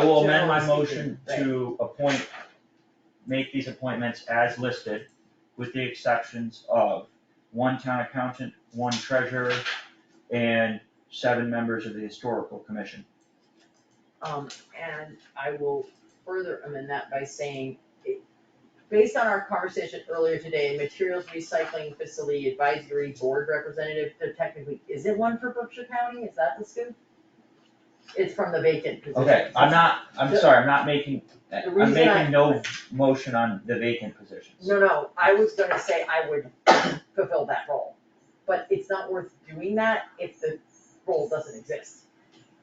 I will amend my Generally motion speaking, to appoint, make these appointments as listed, with the exceptions of one town accountant, one treasurer, and seven members of the historical commission. Um, and I will further amend that by saying, it- based on our conversation earlier today, materials recycling facility advisory board representative, there technically isn't one for Berkshire County, is that the scoop? It's from the vacant position. Okay, I'm not, I'm The- sorry, I'm not making, The I'm reason I- making no motion on the vacant positions. No, no, I was gonna say I would fulfill that role, but it's not worth doing that if the role doesn't exist.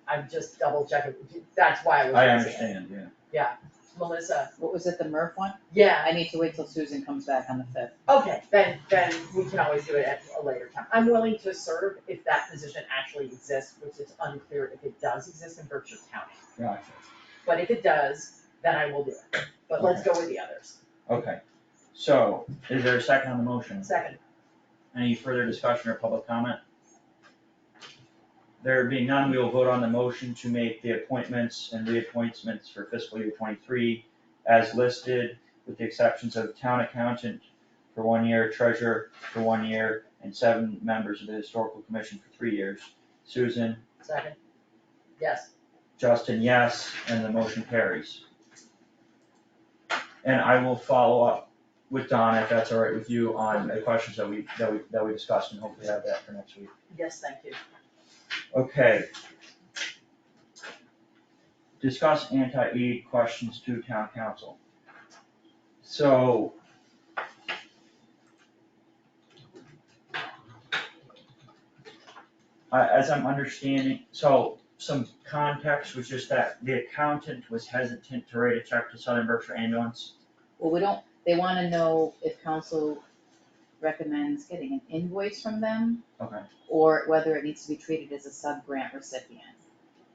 I'm just double checking, that's why I was. I gonna say it. understand, yeah. Melissa, What was it, the Murph one? yeah, I need to wait till Susan comes back on the fifth. Okay, then, then we can always do it at a later time. I'm willing to serve if that position actually exists, which is unclear if it does exist in Berkshire County. Gotcha. But if it does, then I will do it. But let's go with the others. Okay, so is there a second on the motion? Second, Any further discussion or public comment? There being none, we will vote on the motion to make the appointments and reappointments for fiscal year twenty-three as listed, with the exceptions of town accountant for one year, treasurer for one year, and seven members of the historical commission for three years. Susan, second. Yes, Justin, yes, and the motion carries. And I will follow up with Donna, if that's all right with you, on the questions that we, that we, that we discussed, and hopefully have that for next week. yes, thank you. Okay. Discuss anti-aid questions to town council. So. I- as I'm understanding, so some context was just that the accountant was hesitant to write a check to Southern Berkshire Ambulance. Well, we don't, they wanna know if council recommends getting an invoice from them. Okay. Or whether it needs to be treated as a sub-grant recipient.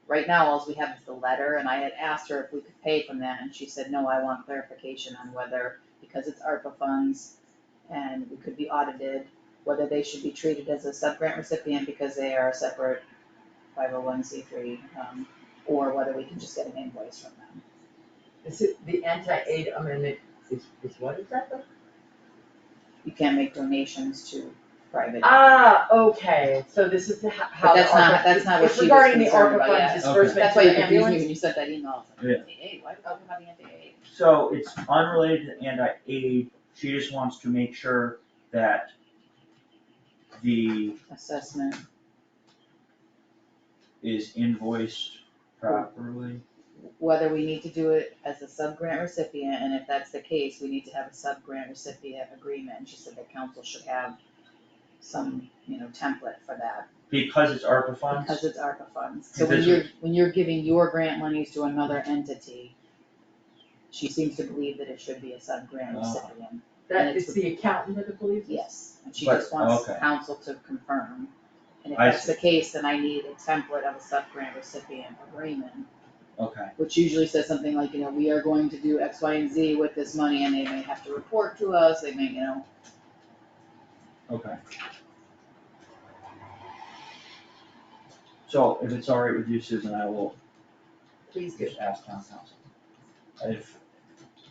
Right now, alls we have is the letter, and I had asked her if we could pay from that, and she said, no, I want clarification on whether, because it's ARPA funds and we could be audited, whether they should be treated as a sub-grant recipient because they are a separate five oh one C three, um, or whether we can just get an invoice from them. This is, the anti-aid amendment is, is what is that? you can't make donations to private. Ah, okay, so this is the ho- how. But the that's not- ARPA- that's not what it's she was concerned about, yeah. Regarding the ARPA funds disbursement That's to why you the confused me ambulance. when you sent that email, I was Yeah. like, anti-aid, why would I have anti-aid? So it's unrelated to anti-aid, she just wants to make sure that the Assessment, is invoiced properly. whether we need to do it as a sub-grant recipient, and if that's the case, we need to have a sub-grant recipient agreement, and she said the council should have some, you know, template for that, Because it's ARPA because funds, it's ARPA funds. So when Because you're, when you're giving your grant monies to another entity, she seems to believe that it should be a sub-grant Ah. recipient, That is the accountant that believes. Yes, and she But- just wants okay. council to confirm. And if I that's the case, then I need a template of a sub-grant recipient agreement, okay, which usually says something like, you know, we are going to do X, Y, and Z with this money, and they may have to report to us, they may, you know. okay. So if it's all right with you, Susan, I will Please do. just ask town council. If,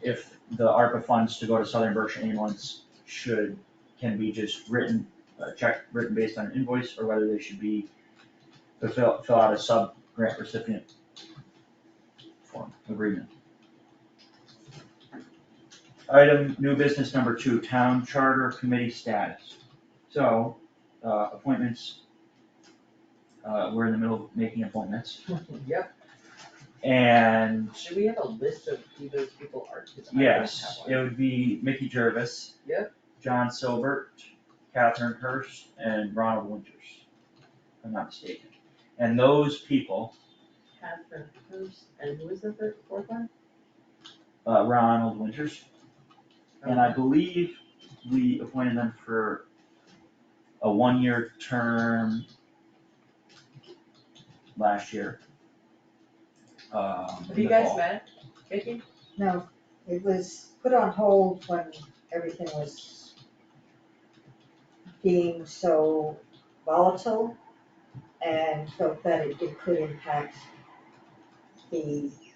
if the ARPA funds to go to Southern Berkshire ambulance should, can be just written, a check written based on an invoice, or whether they should be, fill, fill out a sub-grant recipient form, agreement. Item, new business number two, town charter committee status. So, uh, appointments, uh, we're in the middle of making appointments, Yep, and should we have a list of who those people are? 'Cause I don't have Yes, one. it would be Mickey Jervis. Yep. John Silbert, Catherine Hurst, and Ronald Winters, if I'm not mistaken. And those people, Catherine Hurst, and who is the third, fourth one? uh, Ronald Winters, and I believe we appointed them for a one-year term last year. Um, Have in you the guys fall. met, Vicky? No, it was put on hold when everything was being so volatile and felt that it it could impact the